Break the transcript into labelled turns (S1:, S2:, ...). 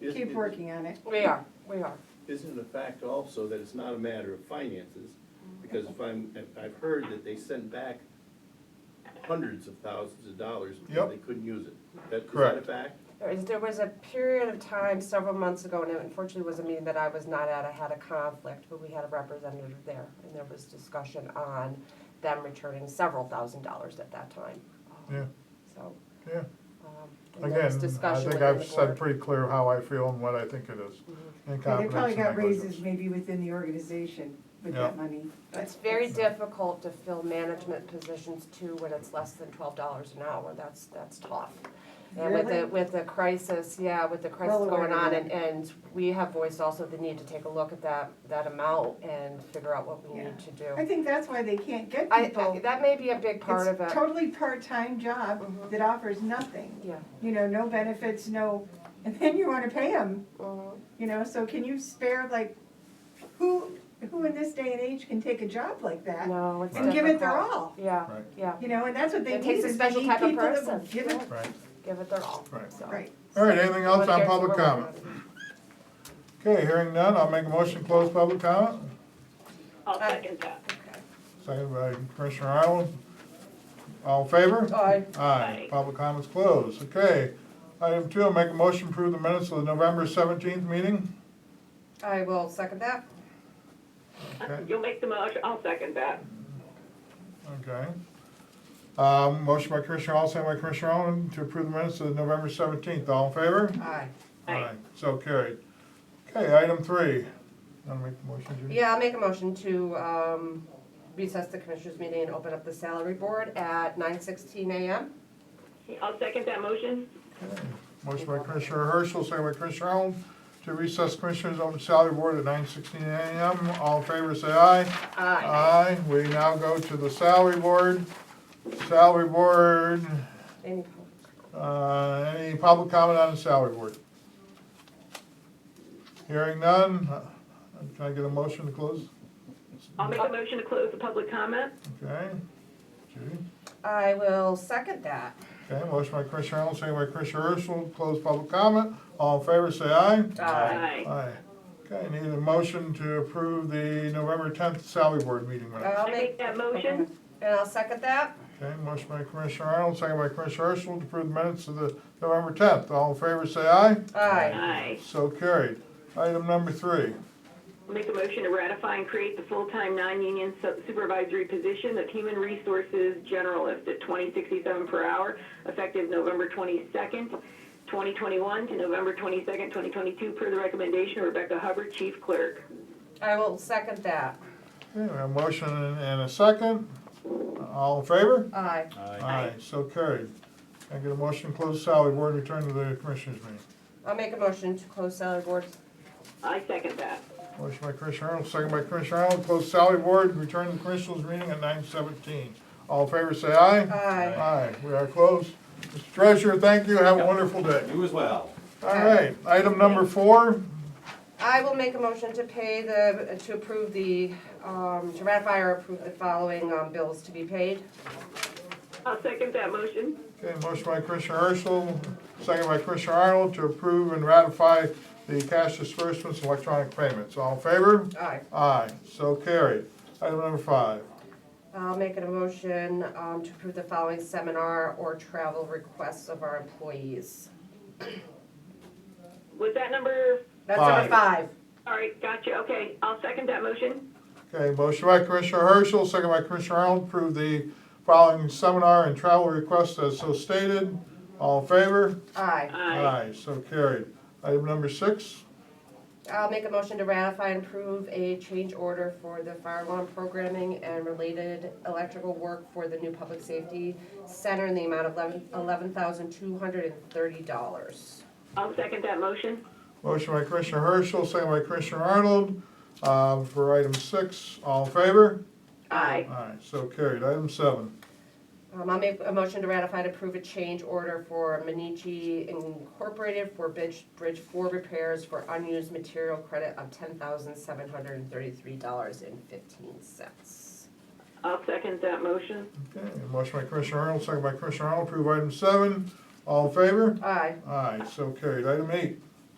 S1: Isn't
S2: keep
S1: it-
S2: working on it.
S3: We are, we are.
S1: Isn't the fact also that it's not a matter of finances? Because if I'm, if I've heard that they sent back hundreds of thousands of dollars because
S4: Yep.
S1: they couldn't use it. That, is that a
S4: Correct.
S1: fact?
S3: There is, there was a period of time several months ago, and it unfortunately was a meeting that I was not at, I had a conflict, but we had a representative there, and there was discussion on them returning several thousand dollars at that time. Um,
S4: Yeah.
S3: So,
S4: yeah.
S3: um, and there
S4: Again,
S3: was
S4: I
S3: discussion
S4: think
S3: within
S4: I've
S3: the
S4: said
S3: board. Mm-hmm.
S4: pretty clear how I feel and what I think it is. In
S2: They
S4: confidence
S2: probably
S4: and
S2: got
S4: negligence.
S2: raises maybe within the organization with
S4: Yeah.
S2: that money. but
S3: It's very difficult to fill management positions too when it's less than twelve dollars an hour, that's, that's tough. And with the,
S2: Really?
S3: with the crisis, yeah, with the crisis
S2: Well aware
S3: going on,
S2: of
S3: and, and we have voiced also the need to take a look at that, that amount and figure out what we
S2: Yeah.
S3: need to do.
S2: I think that's why they can't get
S3: I,
S2: people.
S3: I- that may be a big part of
S2: It's
S3: it,
S2: Totally part-time job
S3: Mhm.
S2: that offers nothing,
S3: yeah.
S2: you know, no benefits, no, and then you wanna pay them,
S3: Mhm.
S2: you know, so can you spare like, who, who in this day and age can take a job like that?
S3: No, it's
S2: And give it their
S3: difficult.
S2: all,
S3: Yeah,
S4: Right.
S3: yeah,
S2: you know, and that's what they
S3: It
S2: need,
S3: takes a
S2: is they
S3: special
S2: need
S3: type of
S2: people that will
S3: person.
S2: give it,
S4: Right,
S3: give it their all,
S4: Right.
S3: so.
S2: right,
S4: all right, anything else
S3: But
S4: on
S3: there's
S4: public
S3: a will about
S4: comment?
S3: it.
S4: Okay, hearing none, I'll make a motion to close public comment.
S5: I'll second that.
S4: Second by Commissioner Arnold. All in favor?
S3: Aye.
S4: Aye, public comment's closed, okay. Item two, I'll make a motion to approve the minutes of the November seventeenth meeting.
S3: I will second that.
S4: Okay,
S5: You'll make the motion, I'll second that.
S4: okay. Um, motion by Commissioner Hall, second by Commissioner Arnold to approve the minutes of the November seventeenth, all in favor?
S3: Aye.
S5: Aye.
S4: So carried. Okay, item three. Wanna make the motion, Judy?
S3: Yeah, I'll make a motion to um, recess the commissioners' meeting and open up the salary board at nine sixteen AM.
S5: I'll second that motion.
S4: Okay. Motion by Commissioner Herschel, second by Commissioner Arnold, to recess Commissioners Open Salary Board at nine sixteen AM. All in favor, say aye.
S3: Aye.
S4: Aye. We now go to the salary board. Salary board,
S3: Any-
S4: uh, any public comment on the salary board? Hearing none, uh, can I get a motion to close?
S5: I'll make a motion to close the public comment.
S4: Okay, Judy?
S3: I will second that.
S4: Okay, motion by Commissioner Arnold, second by Commissioner Herschel, close public comment. All in favor, say aye.
S5: Aye.
S4: Aye. Okay, need a motion to approve the November tenth salary board meeting minutes.
S3: I'll
S5: I make
S3: make,
S5: that motion.
S3: and I'll second that.
S4: Okay, motion by Commissioner Arnold, second by Commissioner Herschel to approve the minutes of the November tenth. All in favor, say aye.
S3: Aye.
S5: Aye.
S4: So carried. Item number three.
S5: I'll Make a motion to ratify and create the full-time, non-union su- supervisory position of human resources generalist at twenty sixty-seven per hour, effective November twenty-second, twenty twenty-one to November twenty-second, twenty twenty-two, per the recommendation of Rebecca Hubbard, chief clerk.
S3: I will second that.
S4: Okay, we have a motion and a second. All in favor?
S3: Aye.
S4: Aye. So carried. Can I get a motion to close salary board and return to the commissioners meeting?
S3: I'll make a motion to close salary board.
S5: I second that.
S4: Motion by Commissioner Arnold, second by Commissioner Arnold, close salary board, return to commissioners meeting at nine seventeen. All in favor, say aye.
S3: Aye.
S4: Aye, we are closed. Mr. Treasurer, thank you, have a wonderful day.
S6: You as well.
S4: All right, item number four,
S3: I will make a motion to pay the, to approve the, um, to ratify or approve the following um, bills to be paid.
S5: I'll second that motion.
S4: okay, motion by Commissioner Herschel, second by Commissioner Arnold to approve and ratify the cash disbursements, and electronic payments. All in favor?
S3: Aye.
S4: Aye, so carried. Item number five,
S3: I'll make a motion um, to approve the following seminar or travel requests of our employees.
S5: Was that number,
S3: That's number five.
S5: all right, gotcha, okay, I'll second that motion.
S4: okay, motion by Commissioner Herschel, second by Commissioner Arnold, approve the following seminar and travel requests as so stated. All in favor?
S3: Aye.
S5: Aye.
S4: so carried. Item number six,
S3: I'll make a motion to ratify and approve a change order for the fire alarm programming and related electrical work for the new public safety center in the amount of eleven, eleven thousand two hundred and thirty dollars.
S5: I'll second that motion.
S4: Motion by Commissioner Herschel, second by Commissioner Arnold, uh, for item six, all in favor?
S5: Aye.
S4: Aye, so carried. Item seven,
S3: Um, I'll make a motion to ratify and approve a change order for Minichi Incorporated for bridge, bridge four repairs for unused material credit of ten thousand seven hundred and thirty-three dollars and fifteen cents.
S5: I'll second that motion.
S4: okay, motion by Commissioner Arnold, second by Commissioner Arnold, approve item seven, all in favor?
S3: Aye.
S4: Aye, so carried. Item eight,